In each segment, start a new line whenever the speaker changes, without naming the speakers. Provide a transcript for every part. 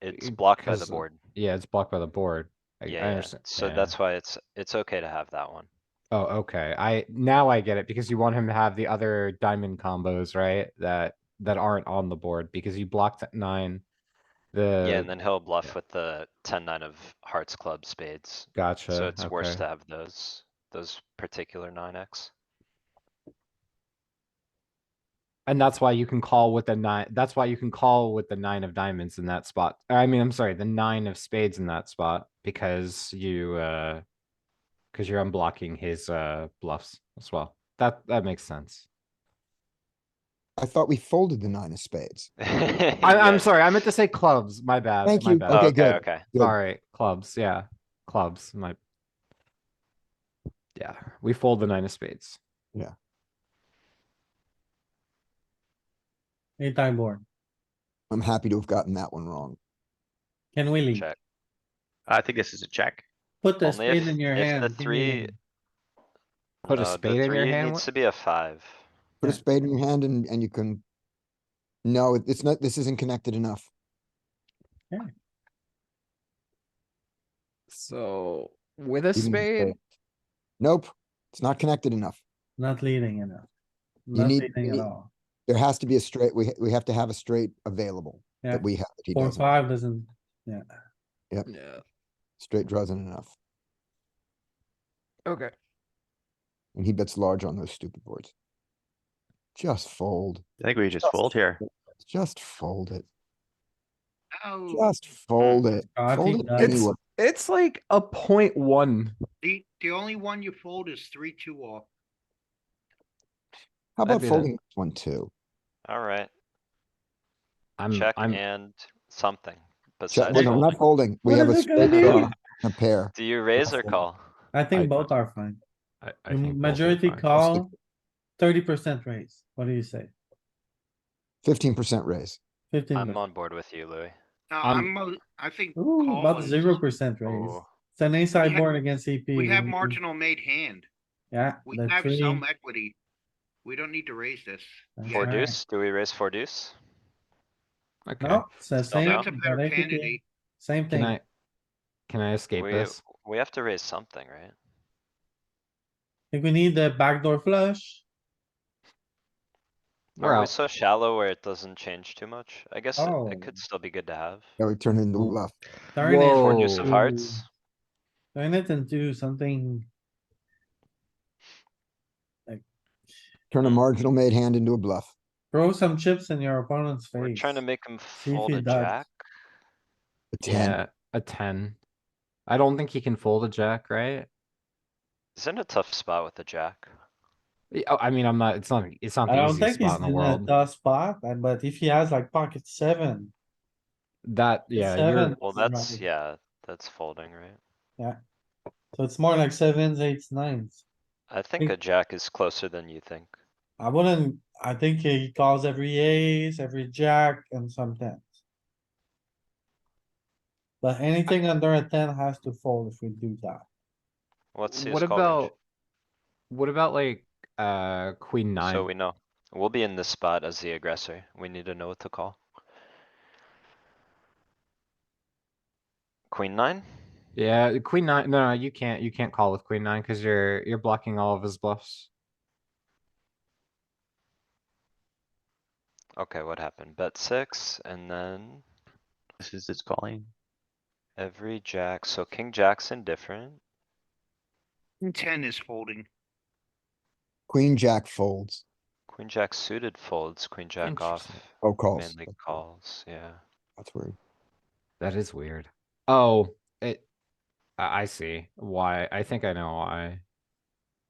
It's
It-
blocked by the
because-
board.
Yeah, it's blocked by the board. I, I
Yeah, yeah.
understand.
so
yeah.
that's why it's, it's okay to have that one.
Oh, okay. I, now I get it because you want him to have the other diamond combos, right? That, that aren't on the board because you blocked at nine.
Yeah, and
The,
then he'll bluff with the ten, nine of hearts, clubs, spades.
gotcha.
So it's worse
okay.
to have those, those particular nine X.
And that's why you can call with the nine, that's why you can call with the nine of diamonds in that spot. I mean, I'm sorry, the nine of spades in that spot because you, uh, because you're unblocking his, uh, bluffs as well. That, that makes sense.
I thought we folded the nine of spades.
I, I'm sorry, I meant to say clubs, my bad.
Thank
my
you,
bad.
okay,
Okay,
good.
Oh, okay.
Good.
Sorry, clubs, yeah, clubs, my. Yeah, we fold the nine of spades.
Anytime board.
I'm happy to have gotten that one wrong.
Can we leave?
Check.
I think this is a check.
Put the
Only if-
spade in your
if the
hand. give me
three-
it.
Put a
No, Uh, the
spade in your
three
hand.
Needs
what-
to be a five.
Put a
Yeah.
spade in your hand and, and you can. No, it- it's not, this isn't connected enough.
So with a
Even with spade.
spade,
Nope, it's not connected enough.
Not leading enough.
You
Not
need-
leading
you
at
need-
all.
There has to be a straight, we, we have to have a straight available
Yeah.
that we have. that He
Four,
doesn't.
five doesn't, yeah.
yeah,
Straight draws isn't enough.
okay.
And he bets large on those stupid boards. Just fold,
I think we just
Yes.
fold here.
just fold it,
Oh,
just fold it.
I
Fold
think
it
that's-
anyway.
It's like a point one.
The, the only one you fold is three, two off.
How about
be the-
folding this one too?
Alright,
I'm,
check
I'm,
and something
Check,
besides.
well, no, not
folding.
folding. We
What
have
is
a
it gonna
straight
do?
draw, and a pair.
Do you raise or
fold.
call?
I
I-
think both are fine.
I, I think we'll be
Majority
fine.
call, thirty percent raise. What do you say?
Fifteen percent raise.
Fifteen.
I'm
percent.
on board with you, Louis.
No,
Um,
I'm, mo- I think.
Ooh,
call
about
is-
zero percent raise.
Ooh,
It's an
We
inside
have-
board against EP.
We have
need-
marginal made hand.
Yeah.
We
the
have
three-
some equity. We don't need to raise this.
That's
Four
right.
deuce, do we raise four deuce?
Okay,
No, it's the
Still
same.
no.
That's a better
identical,
candidate.
Same
can
thing.
I, can I escape
We,
this?
we have to raise something, right?
If we need the backdoor flush,
We're
Are we
out.
so shallow where it doesn't change too much? I guess it-
Oh.
it could still be good to have.
Yeah, we turn it into a
Ooh.
bluff.
turn
Four
it,
Whoa.
deuce of
Ooh.
hearts,
turn it into something.
Turn a marginal made hand into a bluff.
Throw some chips in your opponent's face.
we're trying to make him
if
fold
he
a
does.
jack.
A ten.
Yeah, a ten. I don't think he can fold a jack, right?
He's in a tough spot with the jack.
Yeah, oh, I mean, I'm not, it's not, it's not
I
the
don't
easiest
think he's
spot in the
in a
world.
tough spot, uh, but if he has like pocket seven,
That, yeah, you're,
seven.
Well,
This is
that's,
right.
yeah, that's folding, right?
so it's more like sevens, eights, nines.
I think
Think-
a jack is closer than you think.
I wouldn't, I think he calls every ace, every jack and some tens. But anything under a ten has to fold if we do that.
Let's see
what
his call range,
about, what about like, uh, queen
so
nine?
we know. We'll be in this spot as the aggressor. We need to know what to call. Queen nine?
Yeah, queen nine, no, you can't, you can't call with queen nine because you're, you're blocking all of his bluffs.
Okay, what happened? Bet six and then
This is its calling.
every jack, so king jack's indifferent.
Ten is folding.
Queen, jack folds.
Queen jack suited folds, queen jack off,
Interesting.
Oh, calls.
mainly calls, yeah.
That's weird.
That is weird. Oh, it, I, I see why. I think I know why.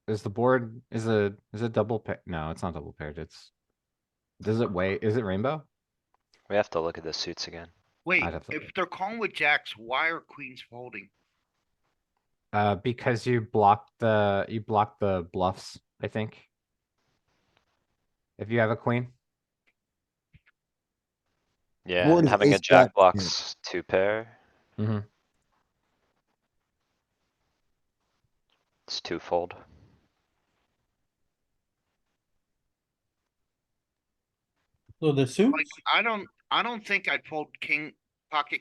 Is the board, is a, is it double paired? No, it's not double paired. It's, does it wait? Is it rainbow?
We have to look at the suits again.
Wait,
I'd have to-
if they're calling with jacks, why are queens folding?
Uh, because you blocked the, you blocked the bluffs, I think. If you have a queen,
Yeah,
Board
and
is
having a
ace jack
jack
here.
blocks two pair.
Mhm.
It's twofold.
So the suit.
Like, I don't, I don't think I'd fold king, pocket